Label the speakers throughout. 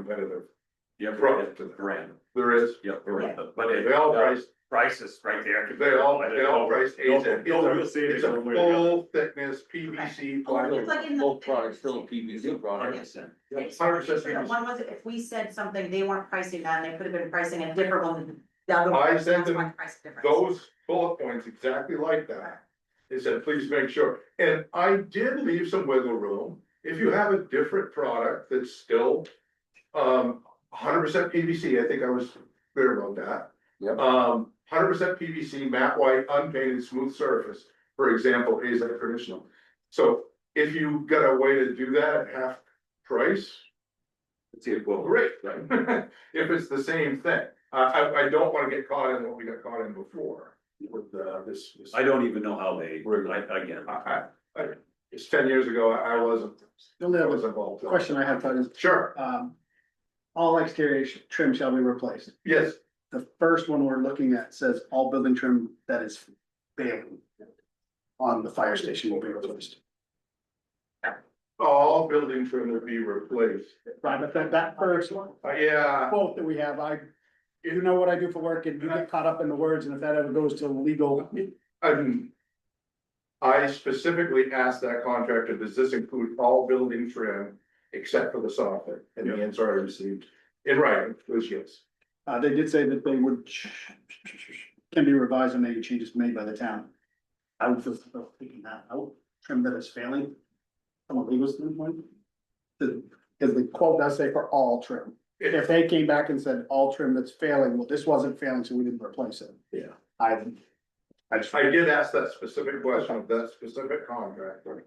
Speaker 1: competitive.
Speaker 2: Yeah,
Speaker 1: Right.
Speaker 2: the brand,
Speaker 1: There is,
Speaker 2: yep, you're right, but it. uh,
Speaker 1: they all price,
Speaker 2: Prices right there.
Speaker 1: they all, they all price A's at.
Speaker 2: No real
Speaker 1: It's a-
Speaker 2: savings
Speaker 1: it's a
Speaker 2: one way or the other.
Speaker 1: full thickness PVC
Speaker 3: It's
Speaker 1: plywood.
Speaker 3: like in the-
Speaker 4: Both products still PVC
Speaker 2: Hundred
Speaker 4: products.
Speaker 2: percent.
Speaker 1: It's Hundred
Speaker 3: Different
Speaker 1: percent.
Speaker 3: One was, if we said something they weren't pricing on, they could have been pricing a different one. The other one-
Speaker 1: I sent
Speaker 3: that's why
Speaker 1: them
Speaker 3: the price difference.
Speaker 1: Those bullet points exactly like that. They said, please make sure. And I did leave some wiggle room. If you have a different product that's still um hundred percent PVC, I think I was clear about that.
Speaker 4: Yep.
Speaker 1: Um, hundred percent PVC, matte white, unpainted, smooth surface, for example, is a traditional. So if you got a way to do that at half price,
Speaker 2: It's the equivalent.
Speaker 1: great, right? If it's the same thing, I, I, I don't wanna get caught in what we got caught in before with, uh, this. this-
Speaker 2: I don't even know how they,
Speaker 1: Right.
Speaker 2: I, again,
Speaker 1: I, I, I, it's ten years ago, I, I wasn't,
Speaker 5: The only
Speaker 1: I
Speaker 5: other
Speaker 1: was involved.
Speaker 5: question I have, Todd, is,
Speaker 1: Sure,
Speaker 5: um, all exterior sh- trim shall be replaced.
Speaker 1: yes,
Speaker 5: The first one we're looking at says all building trim that is failing on the fire station will be replaced.
Speaker 1: all buildings are gonna be replaced.
Speaker 5: Right, but that, that first one,
Speaker 1: Uh, yeah,
Speaker 5: quote that we have, I, you know what I do for work and you get caught up in the words and if that ever goes to legal,
Speaker 1: I'm. I specifically asked that contractor, does this include all building trim except for the soffit? And the answer I received in writing was yes.
Speaker 5: uh, they did say that they would can be revised and any changes made by the town. I would feel comfortable taking that out, trim that is failing from a legal standpoint. The, because the quote does say for all trim. If they came back and said all trim that's failing, well, this wasn't failing, so we didn't replace it.
Speaker 1: Yeah.
Speaker 5: I, I just,
Speaker 1: I did ask that specific question of that specific contractor.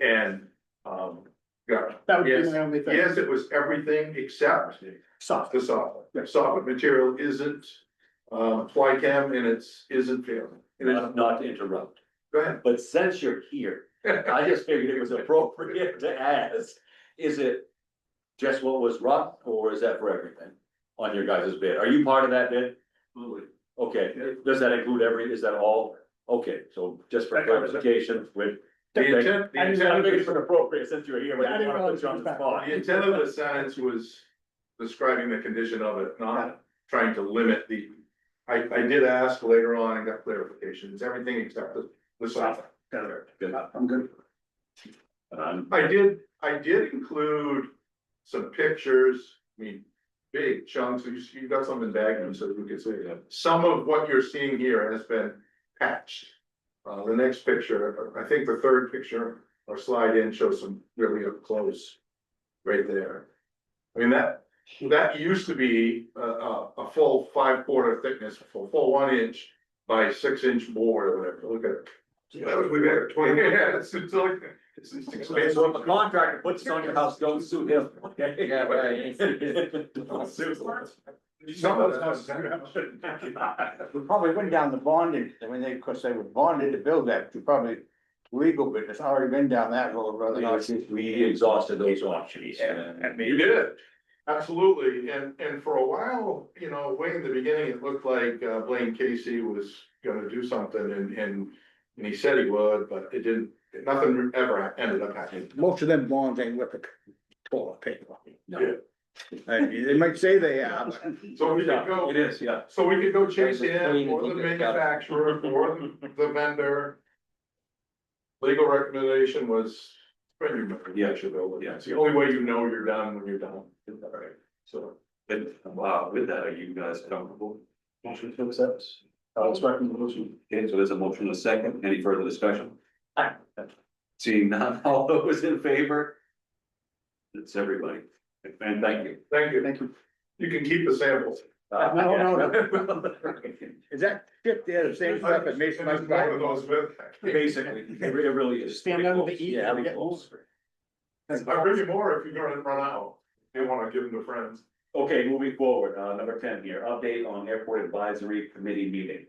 Speaker 1: And, um, got,
Speaker 5: that would be
Speaker 1: yes.
Speaker 5: my only thing.
Speaker 1: yes, it was everything except
Speaker 5: Soft.
Speaker 1: the soffit. The soffit material isn't, um, fly cam and it's, isn't failing. And it's-
Speaker 2: not not to interrupt,
Speaker 1: Go ahead.
Speaker 2: but since you're here, I just figured it was appropriate to ask, is it just what was rough, or is that for everything on your guys' bid? Are you part of that bid?
Speaker 1: Absolutely.
Speaker 2: Okay, does that include every, is that all? Okay, so just for
Speaker 1: That covers it.
Speaker 2: clarification, with.
Speaker 1: The intent, the
Speaker 2: I
Speaker 1: intent of
Speaker 2: think it's
Speaker 1: the-
Speaker 2: appropriate since you're here, but
Speaker 5: Yeah, I
Speaker 2: I didn't
Speaker 5: didn't
Speaker 2: want to put you on the spot.
Speaker 1: the intent of the sentence was describing the condition of it, not trying to limit the. I, I did ask later on and got clarifications, everything except the, the soffit.
Speaker 2: Good.
Speaker 5: I'm good.
Speaker 2: Um,
Speaker 1: I did, I did include some pictures, I mean, big chunks, you, you got some in Bagnum, so you can see that. Some of what you're seeing here has been patched. Uh, the next picture, I think the third picture or slide in shows some really up close right there. I mean, that, that used to be a, a, a full five quarter thickness, full, full one inch by six inch board or whatever, look at it. That was way back twenty. Yeah, it's, it's like, it's it's expensive.
Speaker 2: So if a contractor puts this on your house, don't sue him. okay?
Speaker 4: Yeah, right.
Speaker 2: Don't sue him.
Speaker 1: Some of us-
Speaker 6: We probably went down the bonding, I mean, they, of course, they were bonded to build that, you probably legal, but it's already been down that road, rather than.
Speaker 2: We exhausted those options.
Speaker 1: You did, absolutely, and, and for a while, you know, way in the beginning, it looked like uh, Blaine Casey was gonna do something and, and. And he said he would, but it didn't, nothing ever ended up happening.
Speaker 6: Most of them bonds ain't with the toilet paper.
Speaker 2: No.
Speaker 6: I mean, They might say they are, but
Speaker 1: So we could
Speaker 2: Yeah,
Speaker 1: go,
Speaker 2: It is, yeah.
Speaker 1: so we could go chase
Speaker 4: There's a
Speaker 1: in,
Speaker 4: plane
Speaker 1: or the
Speaker 4: that you got.
Speaker 1: manufacturer, or the- the vendor. Legal recommendation was.
Speaker 2: Yeah.
Speaker 1: Yeah, it's the only way you know you're done when you're done. Right. So.
Speaker 2: And wow, with that, are you guys comfortable?
Speaker 5: Motion to accept. I'll expect the motion.
Speaker 2: Okay, so there's a motion and a second. Any further discussion? Seeing none, all those in favor? It's everybody. And thank you.
Speaker 1: Thank you.
Speaker 5: Thank you.
Speaker 1: You can keep the samples.
Speaker 2: Uh,
Speaker 5: No, no,
Speaker 6: is that shit there the same stuff that makes my
Speaker 1: Just one of those with-
Speaker 2: Basically, it re- it really is.
Speaker 5: Stand under the E,
Speaker 2: Yeah,
Speaker 5: we get
Speaker 2: close.
Speaker 1: I'll bring you more if you're gonna run out. You wanna give them to friends.
Speaker 2: Okay, moving forward, uh, number ten here, update on airport advisory committee meeting.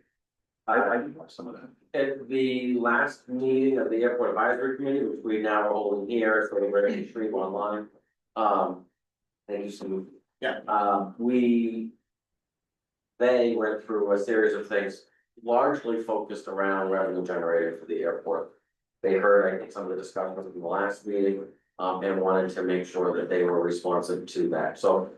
Speaker 2: I, I didn't watch some of that.
Speaker 7: At the last meeting of the airport advisory committee, which we now are holding here, so we're ready to stream online. Um, thank you, Sue.
Speaker 6: Yeah.
Speaker 7: Um, we. They went through a series of things largely focused around revenue generated for the airport. They heard, I think, some of the discussions in the last meeting, um, and wanted to make sure that they were responsive to that. So